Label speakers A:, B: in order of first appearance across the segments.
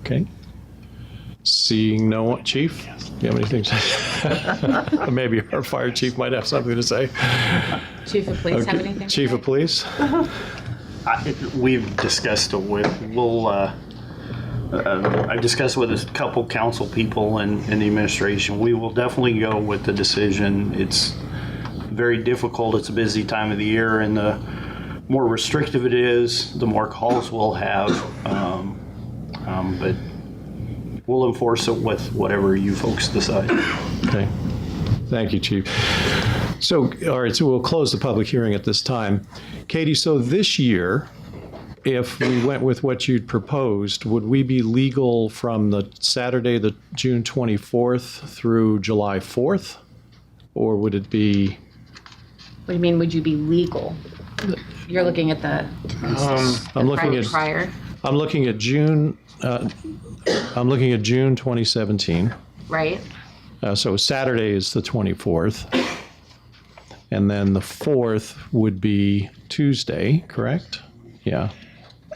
A: Okay. Seeing no one, chief, do you have anything to say? Maybe our fire chief might have something to say.
B: Chief of Police have
A: Okay.
B: anything?
A: Chief of police?
C: I, we've discussed it with, we'll, uh, uh, I've discussed with a couple council people and, and the administration. We will definitely go with the decision. It's very difficult. It's a busy time of the year and the more restrictive it is, the more calls we'll have. Um, um, but we'll enforce it with whatever you folks decide.
A: Okay. Thank you, Chief. So, all right, so we'll close the public hearing at this time. Katie, so this year, if we went with what you'd proposed, would we be legal from the Saturday, the June 24th through July 4th? Or would it be,
B: What do you mean, would you be legal? You're looking at the
A: I'm looking
B: prior,
A: at,
B: prior,
A: I'm looking at June, uh, I'm looking at June 2017.
B: right?
A: Uh, so Saturday is the 24th. And then the 4th would be Tuesday, correct? Yeah,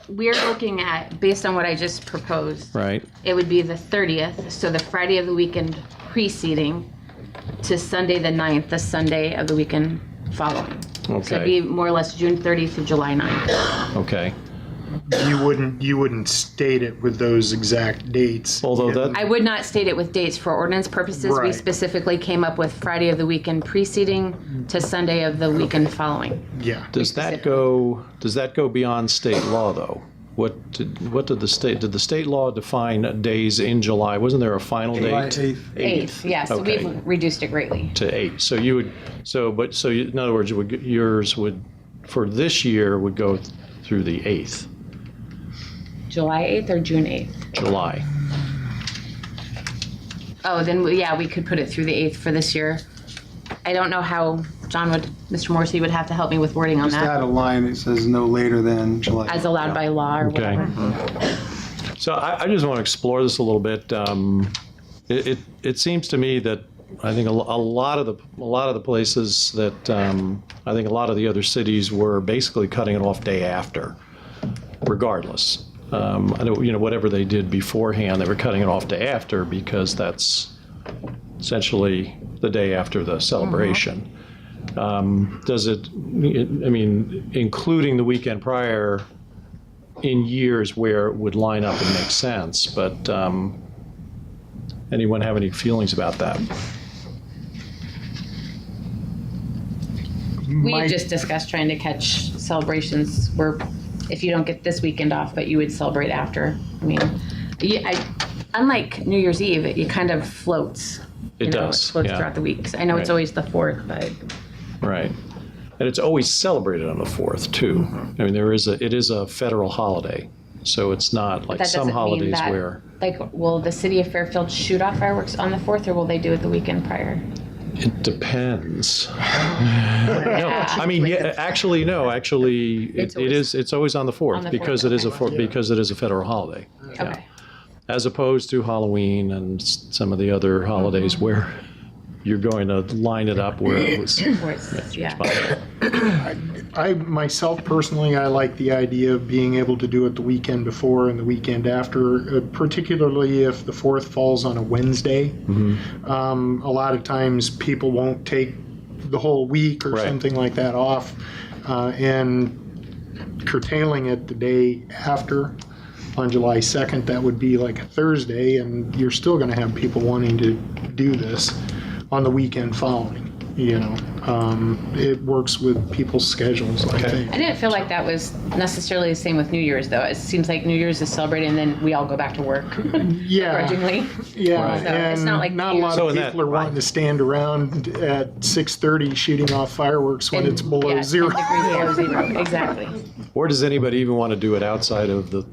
B: We're looking at, based on what I just proposed,
A: right.
B: it would be the 30th, so the Friday of the weekend preceding to Sunday, the 9th, the Sunday of the weekend following. So it'd be
A: Okay,
B: more or less June 30th to July 9th.
A: okay.
D: You wouldn't, you wouldn't state it with those exact dates.
A: Although
B: I
A: that,
B: would not state it with dates for ordinance purposes. We
D: Right.
B: specifically came up with Friday of the weekend preceding to Sunday of the weekend following.
D: Yeah.
A: does that go, does that go beyond state law, though? What did, what did the state, did the state law define days in July? Wasn't there a final date?
B: Eighth, yes,
A: Okay.
B: we've reduced it greatly.
A: To eight. So you would, so, but, so you- in other words, it would- yours would, for this year, would go through the 8th,
B: July 8th or June 8th?
A: July.
B: Oh, then, we- yeah, we could put it through the 8th for this year. I don't know how John would, Mr. Morrissey would have to help me with wording on
E: Just add
B: that,
E: a line that says no later than July.
B: as allowed by law or
A: Okay.
B: whatever.
A: So I, I just want to explore this a little bit. Um, it, it, it seems to me that I think a, lo- a lot of the a lot of the places that um, I think a lot of the other cities were basically cutting it off day after, regardless. Um, I don't, you know, whatever they did beforehand, they were cutting it off day after because that's essentially the day after the celebration. Um, does it? I mean, including the weekend prior, in years where it would line up and make sense, but um, anyone have any feelings about that?
B: We just discussed trying to catch celebrations where, if you don't get this weekend off, but you would celebrate after. I mean, you, I, unlike New Year's Eve, it, it kind of floats.
A: It
B: you know,
A: does,
B: Floats
A: yeah.
B: throughout the weeks. I know it's
A: Right.
B: always the fourth, but
A: Right. And it's always celebrated on the 4th, too. I mean, there is a, it is a federal holiday, so it's not like
B: that
A: some
B: doesn't mean
A: holidays
B: that.
A: where,
B: Like, will the city of Fairfield shoot off fireworks on the fourth, or will they do it the weekend prior?
A: it depends. No, I mean, yeah, actually, no, actually, it
B: It's
A: it is, it's always on the
B: On
A: 4th
B: the
A: because
B: 4th,
A: it is a,
B: okay.
A: four- because it is a federal holiday. Yeah.
B: Okay.
A: as opposed to Halloween and s- some of the other holidays
D: Mm-hmm.
A: where you're going to line it up where it was.
B: Where it's, yeah.
D: I, myself personally, I like the idea of being able to do it the weekend before and the weekend after, uh, particularly if the fourth falls on a Wednesday.
A: Mm-hmm.
D: Um, a lot of times people won't take the whole week or
A: Right.
D: something like that off. Uh, and curtailing it the day after on July 2nd, that would be like a Thursday, and you're still going to have people wanting to do this on the weekend following. You know, um, it works with people's schedules, I
B: I
D: think.
B: didn't feel like that was necessarily the same with New Year's, though. It seems like New Year's is celebrated, and then we all go back to work
D: Yeah,
B: grudgingly.
D: yeah.
A: Right.
B: So it's
D: And
B: not like
D: not a lot
A: So
D: of
A: in that-
D: people are wanting to stand around at 6:30 shooting off fireworks when it's below
B: Yeah,
D: zero.
B: 10 degrees below zero, exactly.
A: Or does anybody even want to do it outside of the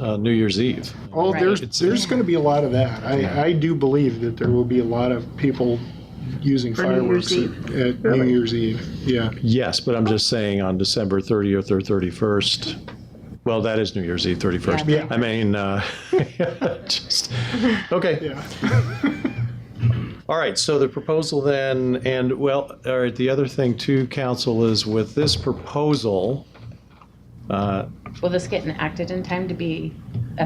A: uh, New Year's Eve?
D: Oh,
B: Right.
A: It's-
D: there's, there's going to be a lot of that. I, I do believe that there will be a lot of people using
F: New Year's
D: fireworks at at New Year's Eve. Yeah,
A: Yes, but I'm just saying on December 30th or 31st. Well, that is New Year's Eve, 31st.
D: Yeah.
A: I mean, uh, just, okay.
D: yeah.
A: All right, so the proposal then, and well, all right, the other thing too, council, is with this proposal, uh,
B: Will this get enacted in time to be